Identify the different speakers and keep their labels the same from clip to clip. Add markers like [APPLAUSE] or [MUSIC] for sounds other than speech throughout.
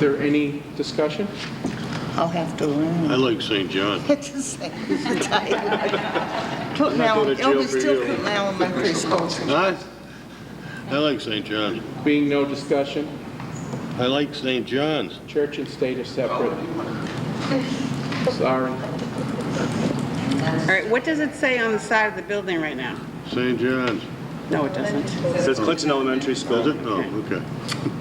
Speaker 1: there any discussion?
Speaker 2: I'll have to learn.
Speaker 3: I like St. John.
Speaker 2: It's the same. Put me
Speaker 3: going
Speaker 2: on,
Speaker 3: to jail
Speaker 2: it'll be
Speaker 3: for
Speaker 2: still
Speaker 3: you.
Speaker 2: put me on my preschool.
Speaker 3: I, I like St. John.
Speaker 1: Being no discussion,
Speaker 3: I like St. John's.
Speaker 1: church and state are separate. Sorry.
Speaker 4: All right, what does it say on the side of the building right now?
Speaker 3: St. John's.
Speaker 4: No, it doesn't.
Speaker 5: It says Clinton Elementary
Speaker 3: Does
Speaker 5: School.
Speaker 3: it? No, okay.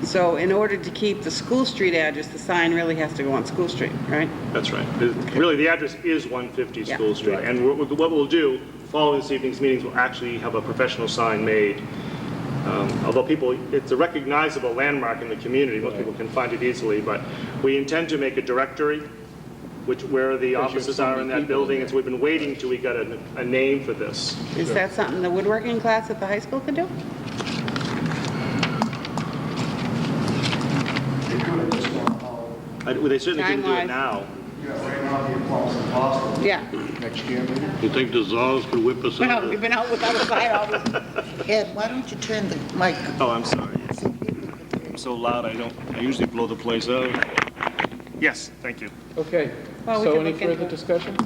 Speaker 4: So in order to keep the School Street address, the sign really has to go on School Street, right?
Speaker 5: That's right. It- Really, the address is 150
Speaker 4: Yeah.
Speaker 5: School Street. And what what we'll do, following this evening's meetings, we'll actually have a professional sign made. Um, Although people, it's a recognizable landmark in the community, most people can find it easily, but we intend to make a directory, which, where the
Speaker 1: have
Speaker 5: offices
Speaker 1: so
Speaker 5: are
Speaker 1: many
Speaker 5: in
Speaker 1: people
Speaker 5: that
Speaker 1: in
Speaker 5: building, and so we've been waiting till we got a a name for this.
Speaker 4: Is that something the woodworking class at the high school could do?
Speaker 6: They do it this one, oh,
Speaker 5: I- They certainly couldn't do
Speaker 4: Time-wise.
Speaker 5: it now.
Speaker 6: yeah, right now, the applause is Boston.
Speaker 4: Yeah. [LAUGHS]
Speaker 1: Next year, maybe?
Speaker 3: You think the Zolls could whip us
Speaker 4: Well,
Speaker 3: out?
Speaker 4: we've been out without a sign all this
Speaker 2: Ed, why don't you turn the mic?
Speaker 5: Oh, I'm sorry. I'm so loud, I don't, I usually blow the place out. Yes, thank you.
Speaker 1: Okay.
Speaker 4: Well, we
Speaker 1: So
Speaker 4: can
Speaker 1: any
Speaker 4: look into
Speaker 1: further
Speaker 4: it.
Speaker 1: discussion?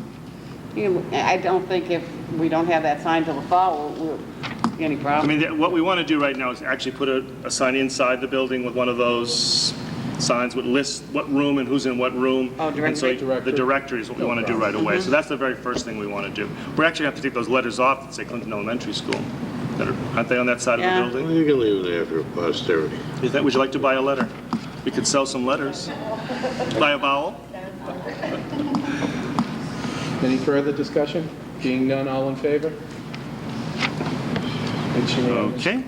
Speaker 4: You know, I don't think if we don't have that sign till the fall, we'll, we'll- any
Speaker 5: I
Speaker 4: problem.
Speaker 5: mean, th- what we want to do right now is actually put a, a sign inside the building with one of those signs with lists what room and who's in what room.
Speaker 4: Oh,
Speaker 5: And so
Speaker 4: directory. Mm-hmm.
Speaker 5: The directory is what we want to do right away. So that's the very first thing we want to do. We're actually going to have to take those letters off that say Clinton Elementary School. that are- Aren't they on that side
Speaker 4: Yeah.
Speaker 5: of the
Speaker 3: Well,
Speaker 5: building?
Speaker 3: you can leave it there for posterity.
Speaker 5: Is that, would you like to buy a letter? We could sell some letters. Buy a vowel?
Speaker 1: Any further discussion? Being none, all in favor? It's unanimous.
Speaker 5: Okay.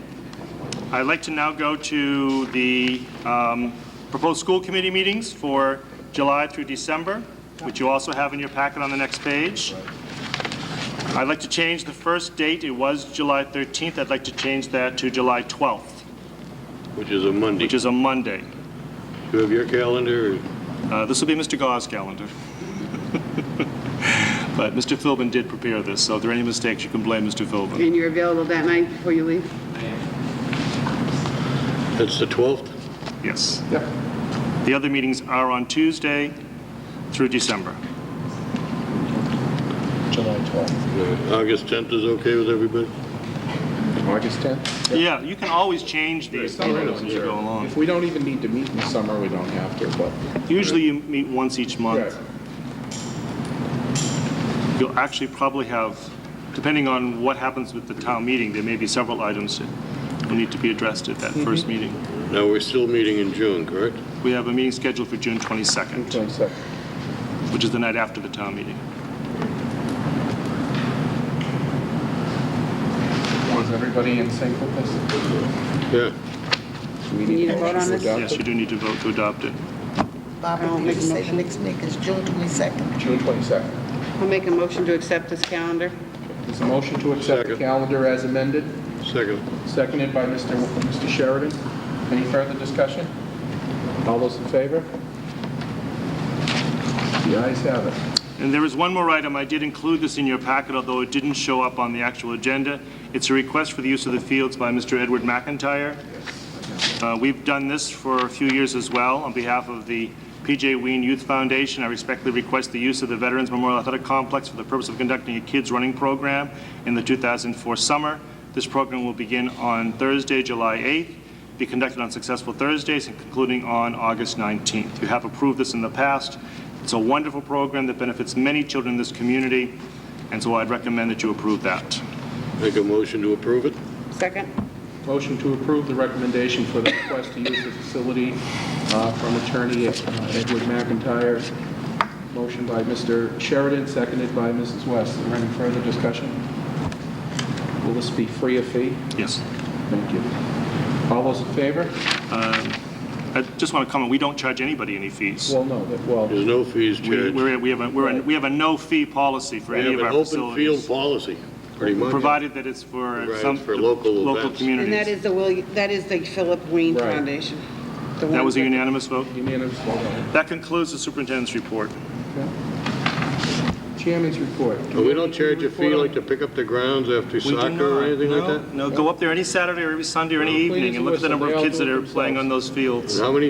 Speaker 5: I'd like to now go to the um, proposed school committee meetings for July through December, which you also have in your packet on the next page. I'd like to change the first date. It was July 13th. I'd like to change that to July 12th,
Speaker 3: Which is a Monday.
Speaker 5: which is a Monday.
Speaker 3: You have your calendar? or-
Speaker 5: Uh, This will be Mr. Gau's calendar. [LAUGHS] But Mr. Philbin did prepare this, so if there are any mistakes, you can blame Mr. Philbin.
Speaker 4: And you're available that night before you leave?
Speaker 3: That's the 12th?
Speaker 5: Yes.
Speaker 1: Yep.
Speaker 5: The other meetings are on Tuesday through December.
Speaker 3: August 10th is okay with everybody?
Speaker 1: August 10th?
Speaker 5: Yeah, you can always change these meetings as you go along.
Speaker 1: If we don't even need to meet in the summer, we don't have to, but.
Speaker 5: Usually you meet once each
Speaker 1: Right.
Speaker 5: month. You'll actually probably have, depending on what happens with the town meeting, there may be several items that will need to be addressed at that first meeting.
Speaker 3: Now, we're still meeting in June, correct?
Speaker 5: We have a meeting scheduled for June 22nd,
Speaker 1: One second.
Speaker 5: which is the night after the town meeting.
Speaker 1: Is everybody in sync with this?
Speaker 3: Yeah.
Speaker 1: We
Speaker 4: You need to vote on this?
Speaker 1: adopt
Speaker 5: Yes,
Speaker 1: it.
Speaker 5: you do need to vote to adopt it.
Speaker 2: Barbara,
Speaker 4: I'll
Speaker 2: did
Speaker 4: make
Speaker 2: you
Speaker 4: a
Speaker 2: say the
Speaker 4: motion.
Speaker 2: next meeting is June 22nd?
Speaker 1: June 22nd.
Speaker 4: I'll make a motion to accept this calendar.
Speaker 1: Is a motion to accept the
Speaker 3: Second.
Speaker 1: calendar as amended,
Speaker 3: Second.
Speaker 1: seconded by Mr. Mr. Sheridan. Any further discussion? All those in favor? The ayes have it.
Speaker 5: And there is one more item, I did include this in your packet, although it didn't show up on the actual agenda. It's a request for the use of the fields by Mr. Edward McIntyre. Uh, We've done this for a few years as well. On behalf of the PJ Ween Youth Foundation, I respectfully request the use of the Veterans Memorial Athletic Complex for the purpose of conducting a kids' running program in the 2004 summer. This program will begin on Thursday, July 8th, be conducted on successful Thursdays, and concluding on August 19th. You have approved this in the past. It's a wonderful program that benefits many children in this community, and so I'd recommend that you approve that.
Speaker 3: Make a motion to approve it?
Speaker 4: Second?
Speaker 1: Motion to approve the recommendation for the request to use the facility uh, from attorney uh, Edward McIntyre. Motion by Mr. Sheridan, seconded by Mrs. West. Is there any further discussion? Will this be free of fee?
Speaker 5: Yes.
Speaker 1: Thank you. All those in favor?
Speaker 5: I just want to comment, we don't charge anybody any fees.
Speaker 1: Well, no, that- well,
Speaker 3: There's no fees
Speaker 5: We,
Speaker 3: charged. We
Speaker 5: we're, we have a, we're, a- we have a no-fee policy for any
Speaker 3: have
Speaker 5: of
Speaker 3: an
Speaker 5: our
Speaker 3: open field
Speaker 5: facilities.
Speaker 3: policy, pretty much.
Speaker 5: Provided that it's for
Speaker 3: Right,
Speaker 5: some.
Speaker 3: for local events.
Speaker 4: And that
Speaker 5: communities.
Speaker 4: is the Will, that is the Philip Ween
Speaker 1: Right.
Speaker 4: Foundation.
Speaker 5: That was a unanimous vote.
Speaker 1: unanimous vote on
Speaker 5: That concludes the superintendent's report.
Speaker 1: it. Chairman's report.
Speaker 3: But we don't charge a fee like to pick up the grounds after
Speaker 5: We do
Speaker 3: soccer or
Speaker 5: not-
Speaker 3: anything like
Speaker 5: no,
Speaker 3: that?
Speaker 5: No, go up there any Saturday or every Sunday or any
Speaker 1: Please
Speaker 5: evening and look at the number of
Speaker 1: listen, they all
Speaker 5: kids
Speaker 1: do
Speaker 5: that
Speaker 1: it
Speaker 5: are playing
Speaker 1: themselves.
Speaker 5: on those fields.
Speaker 3: How many